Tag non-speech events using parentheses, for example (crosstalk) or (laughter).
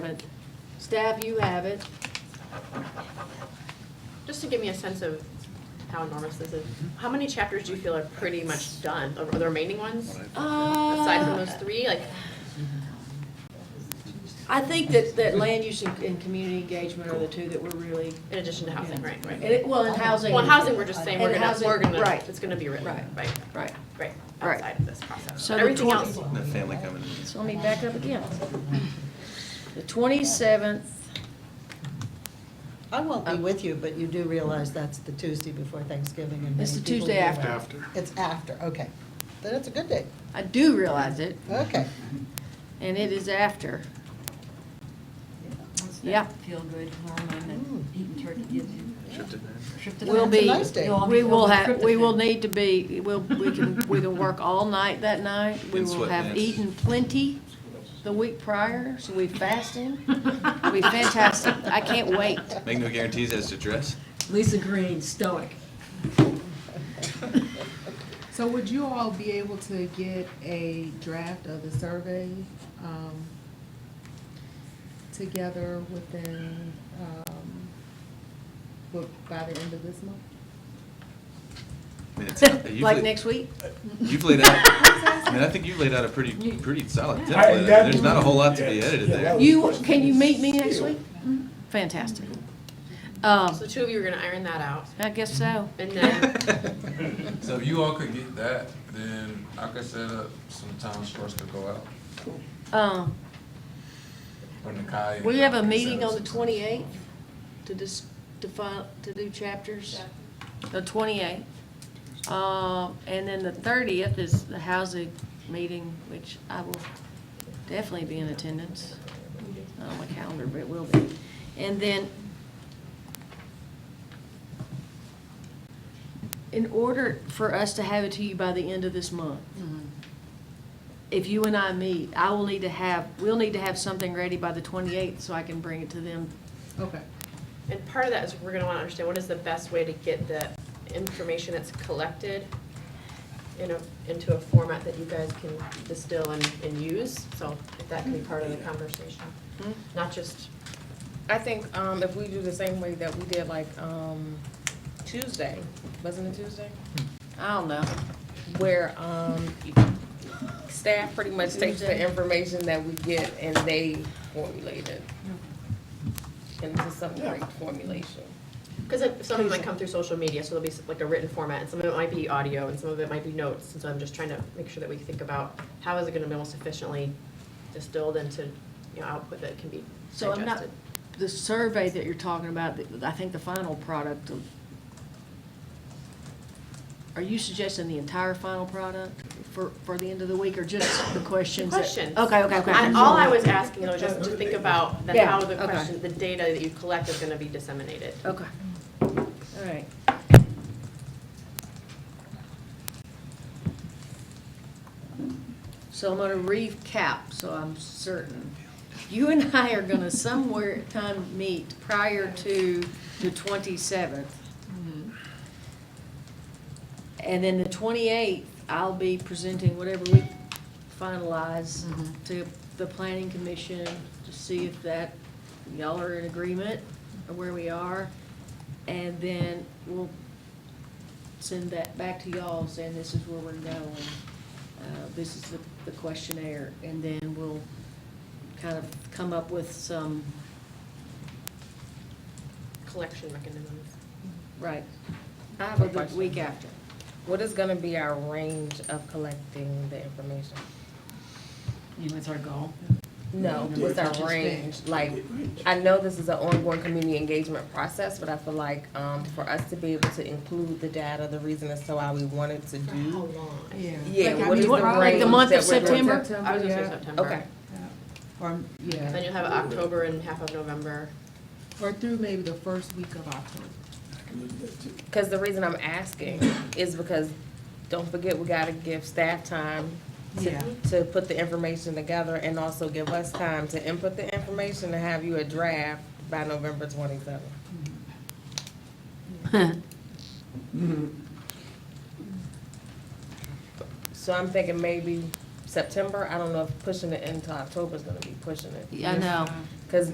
it. Staff, you have it. Just to give me a sense of how enormous this is, how many chapters do you feel are pretty much done, Are the remaining ones? Aside from Uh, those three, like, I think that, that land use and, and community engagement are the two that we're really, in addition to housing, right, and right? it, well, and housing. Well, housing, we're just saying, we're And gonna, housing, we're gonna, right. it's gonna be written, right, Right. right, Right. Right. outside of this process. So the Everything 20 else, The family coming in. So let me back up again. The twenty-seventh, I won't Um, be with you, but you do realize that's the Tuesday before Thanksgiving and It's many the people Tuesday do after. that. It's after, okay. Then it's a good day. I do realize it, Okay. and it is after. Yeah. Feel good hormone and eating turkey gives you. Shipped it in. Tryptophan. We'll be- It's a nice day. You'll all be We filled will with have, we will tryptophan. need to be, we'll, we can, we can work all night that night. We And will have sweatpants. eaten plenty the week prior, so we fasting. It'll be fantastic. I can't wait. Make no guarantees as to dress. Lisa Green, stoic. (laughs) So would you all be able to get a draft of the survey um, together within, um, bu- by the end of this month? I mean, (laughs) it's not- you've Like laid- next week? You've laid out, I mean, I think you've laid out a pretty, pretty solid template. I mean, There's not a whole lot to be edited there. You, can you meet me next week? Fantastic. Um, so the two of you are gonna iron that out, I guess so. and then, uh, (laughs) So if you all could get that, then I could set up some times for us to go out. (laughs) Um, Or Nakai. and we have a I can set meeting up on the some times. twenty-eighth to dis, to fi, to do chapters. The twenty-eighth. Um, and then the thirtieth is the housing meeting, which I will definitely be in attendance. Not on my calendar, but it will be. And then in order for us to have it to you by the end of this month, Mm-hmm. Mm-hmm. if you and I meet, I will need to have, we'll need to have something ready by the twenty-eighth so I can bring it to them. Okay. and part of that is we're gonna wanna understand what is the best way to get the information that's collected in a, into a format that you guys can distill and, and use, so if that can be part of the conversation, not just I think um, if we do the same way that we did like um, Tuesday, wasn't it Tuesday? I don't know. Where um, staff pretty much takes Tuesday. the information that we get and they formulate it into some great formulation. Because some of it might come through social media, so there'll be s- like a written format, and some of it might be audio, and some of it might be notes, and so I'm just trying to make sure that we think about how is it gonna be most efficiently distilled into, you know, output that can be So I'm not, digested. the survey that you're talking about, that- I think the final product of, are you suggesting the entire final product for, for the end of the week, or just the questions? that- Questions. Okay, okay, okay. I- All I was asking though, just to think about the Yeah, how the okay. question, the data that you collect is gonna be disseminated. Okay. All right. So I'm gonna recap, so I'm certain. You and I are gonna somewhere time meet prior to the twenty-seventh. And then the twenty-eighth, I'll be presenting whatever we finalize to the planning commission to see if that, y'all are in agreement of where we are. And then we'll send that back to y'all saying this is where we're going. Uh, this is the, the questionnaire, and then we'll kind of come up with some, Collection mechanisms. right, I have for a the question. week after. What is gonna be our range of collecting the information? You know, it's our goal. No, what's our range? Like, I know this is an ongoing community engagement process, but I feel like, um, for us to be able to include the data, the reason as to why we wanted to For how do. long? Yeah, Like, I what is mean, the what- range? like the month of that we're going to- September? I was gonna say September. Okay, Or, Then yeah, you'll have October and half of November. or through maybe the first week of October. cause the reason I'm asking is because, don't forget, we gotta give staff time Yeah. to put the information together and also give us time to input the information and have you a draft by November twenty-seventh. So I'm thinking maybe September, I don't know if pushing it into October is gonna be pushing it. Yeah, I know.